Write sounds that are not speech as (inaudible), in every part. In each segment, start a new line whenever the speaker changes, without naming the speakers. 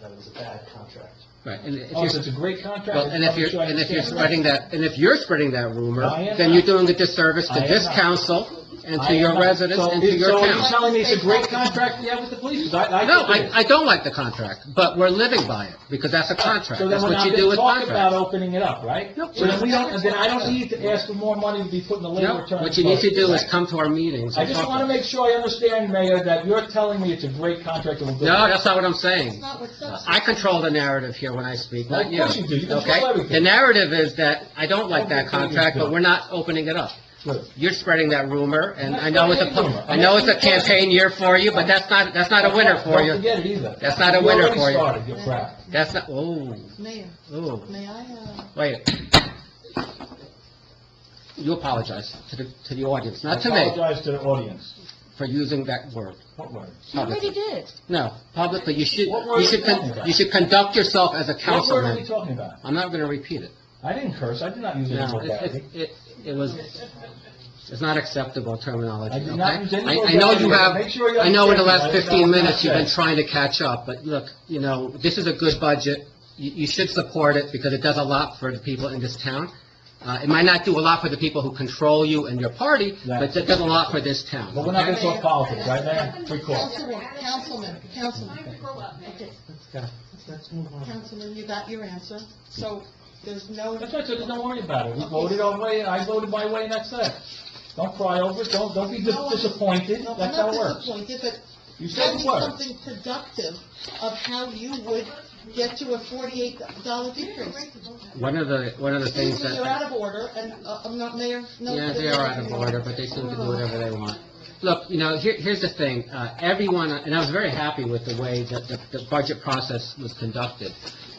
that it was a bad contract.
Right, and if
Oh, so it's
you're,
a great contract.
well, and if you're, and if you're spreading that, and if you're spreading that rumor,
I am
then
not.
you're doing a disservice to
I am
this
not.
council and
I
to
am
your
not.
residents
So
and to
it-
your
So you're
town.
telling me it's a great contract we have with the police? 'Cause I, I
No,
think it is.
I, I don't like the contract, but we're living by it, because that's a contract.
So then
That's
we're
what
not
you do
gonna
with
talk about
contracts.
opening it up, right?
Nope.
So then we don't, then I don't need to ask for more money to be put in the labor
No,
return.
what you need to do is
Right.
come to our meetings
I
and
just
talk.
want to
about it.
make sure I understand, Mayor, that you're telling me it's a great contract that will do.
No, that's not what I'm
That's
saying.
not what's up.
Uh, I control the narrative here when I speak,
Well,
not
of
you.
course you do. You control
okay?
everything.
The narrative is that I don't like that
Everything is
contract, but
good.
we're not opening it up.
Good.
You're spreading that rumor, and I
I'm
know
not
it's a,
spreading rumor.
I know it's a
I'm not-
campaign year for you, but that's not, that's not a winner for
Don't
you.
forget it either.
That's not a winner for you.
You already started, you're crap.
That's not, oh,
Mayor,
oh,
may I, uh,
wait. You apologize to the, to the audience, not to
I
me,
apologize to the audience.
for using that word
What word?
you already
publicly.
did.
No, publicly, you should,
What word
you should,
are you talking
con-
about?
you should conduct yourself as a
What word are we
councilman.
talking about?
I'm not gonna repeat it.
I didn't curse, I did not use any
No,
word
it,
badly.
it- it, it was, it's not acceptable terminology,
I
okay?
did not use any
I- I
vulgarity.
know you have,
Make sure you
I know in the last
understand
15
what I- that was not
minutes, you've been
said.
trying to catch up, but look, you know, this is a good budget. You, you should support it because it does a lot for the people in this town. Uh, it might not do a lot for the people who control you and your party, but it does a lot for this town.
But we're not
okay?
gonna talk politics, right, Mayor? Free call.
Councilman, Councilman, Councilman. Okay,
Yeah.
Councilman, you got your answer. So there's no,
That's right, so just don't worry about it. We voted our way, I voted my way, and that's it. Don't cry over it, don't, don't be dis-
No, I'm-
disappointed,
no, I'm
that's how
not
it works.
disappointed, but
You
tell
said
me
the word.
something productive of how you would get to a forty-eight dollar decrease.
One of the, one of the
Excuse
things
me, you're
that,
out of order, and uh, I'm not mayor, no.
yeah, they are out of order, but they seem to do whatever they want. Look, you know, here, here's the thing, uh, everyone, and I was very happy with the way that the, the budget process was conducted,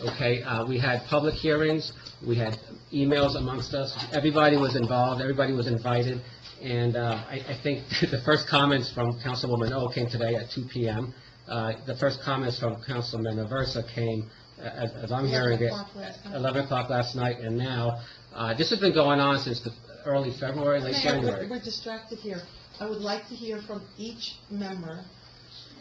okay? Uh, we had public hearings, we had emails amongst us, everybody was involved, everybody was invited, and, uh, I, I think (laughs) the first comments from Councilwoman O came today at two PM. Uh, the first comments from Councilman Aversa came, uh, as, as I'm hearing it,
11 o'clock last night.
11 o'clock last night and now. Uh, This has been going on since the early February, late
Mayor, we're-
January.
we're distracted here. I would like to hear from each member,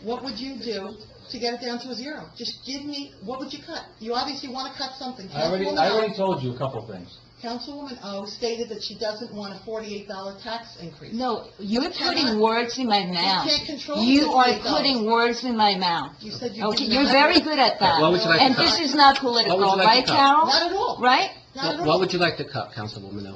what would you do to get it down to a zero? Just give me, what would you cut? You obviously want to cut something.
I already,
Councilwoman
I
O-
already told you a couple of things.
Councilwoman O stated that she doesn't want a forty-eight dollar tax increase.
No, you're putting
cannot-
words in my mouth.
can't control
You
the
are
state government.
putting words in my mouth.
You said you
Okay,
didn't
you're
have-
very good at that.
What would you like to
And
cut?
this is not
What would
political,
you like
right,
to cut?
Carol?
Not at all.
Right?
Not at
What-
all.
What would you like to cut, Councilwoman O?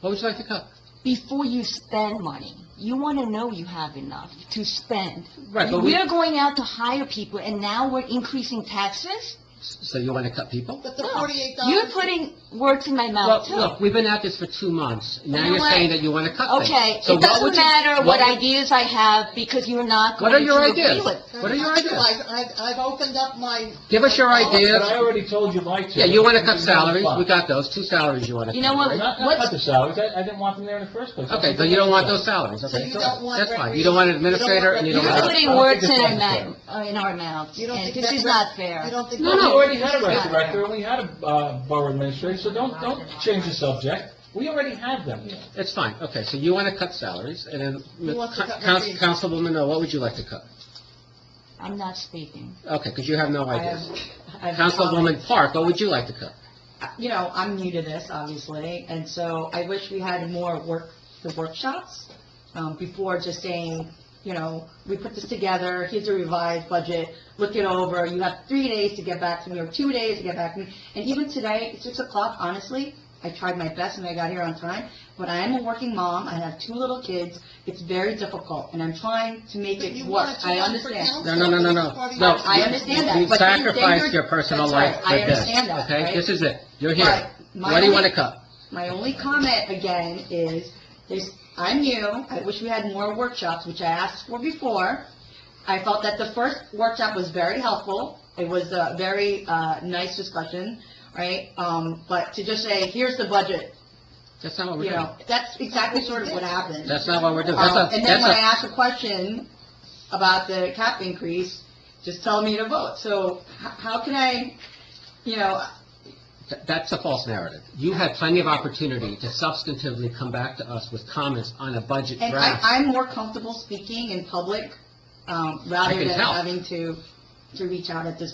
What would you like to cut?
Before you spend money, you want to know you have enough to spend.
Right, but we-
We're going out to hire people, and now we're increasing taxes?
So you want to cut people?
But the
No.
forty-eight dollars.
You're putting words in my
Well,
mouth, too.
look, we've been at this for two months. Now
You know
you're
what?
saying that you want to cut things.
Okay,
So
it
what would
doesn't
you-
matter what
would-
ideas I have, because you're not
What
going
are
to
your
agree
ideas?
with.
What are your ideas?
I've, I've opened up my,
Give us your
But I
ideas.
already told you my two.
Yeah, you want to cut
It's
salaries,
fine.
we got those, two salaries you want to cut.
You know
I'm
what,
not gonna cut
what's,
the salaries, I, I didn't want them there in the first place.
Okay, so you don't want those salaries,
So
okay?
you don't want
That's fine,
recre-
you don't want an
you don't want
administrator and you
recre-
don't
you're
want...
putting words
I don't think it's
in our
necessary.
mouth, uh, in our mouths,
you don't
and
think
this
that
is
rec-
not fair.
You don't think.
No,
We
no.
already had a rec
Yeah.
director, and we had a uh, borough administrator, so don't, don't change the subject. We already have them here.
It's fine, okay, so you want to cut salaries, and then,
Who wants to cut
Coun-
recreation?
Councilwoman O, what would you like to cut?
I'm not speaking.
Okay, because you have no
I
idea.
have- I have a comment.
Councilwoman Park, what would you like to cut?
You know, I'm new to this, obviously, and so I wish we had more work, the workshops, um, before just saying, you know, we put this together, here's a revised budget, look it over, you have three days to get back to me, or two days to get back to me. And even today, at six o'clock, honestly, I tried my best and I got here on time, but I am a working mom, I have two little kids, it's very difficult, and I'm trying to make
But you
it
want
work,
it to
I
run for
understand.
council.
No, no, no, no,
It's
no.
party
No,
politics.
I understand that,
You
but then-
sacrificed
then
your personal
that's right,
life
I
for this,
understand that,
okay?
right?
This is it, you're
Right.
here.
My
What do you want
only-
to cut?
My only comment again is, there's, I'm new, I wish we had more workshops, which I asked for before. I felt that the first workshop was very helpful, it was a very, uh, nice discussion, right? Um, but to just say, here's the budget,
That's not what we're
you
doing.
know, that's exactly sort of what happened.
That's not what we're doing.
Um,
That's a,
And then
that's
when I
a,
asked a question about the cap increase, just tell me to vote, so h- how can I, you know,
th- that's a false narrative. You had plenty of opportunity to substantively come back to us with comments on a budget
And I,
draft.
I'm more comfortable speaking in public, um,
I
rather
can
than
tell.
having to to reach out at this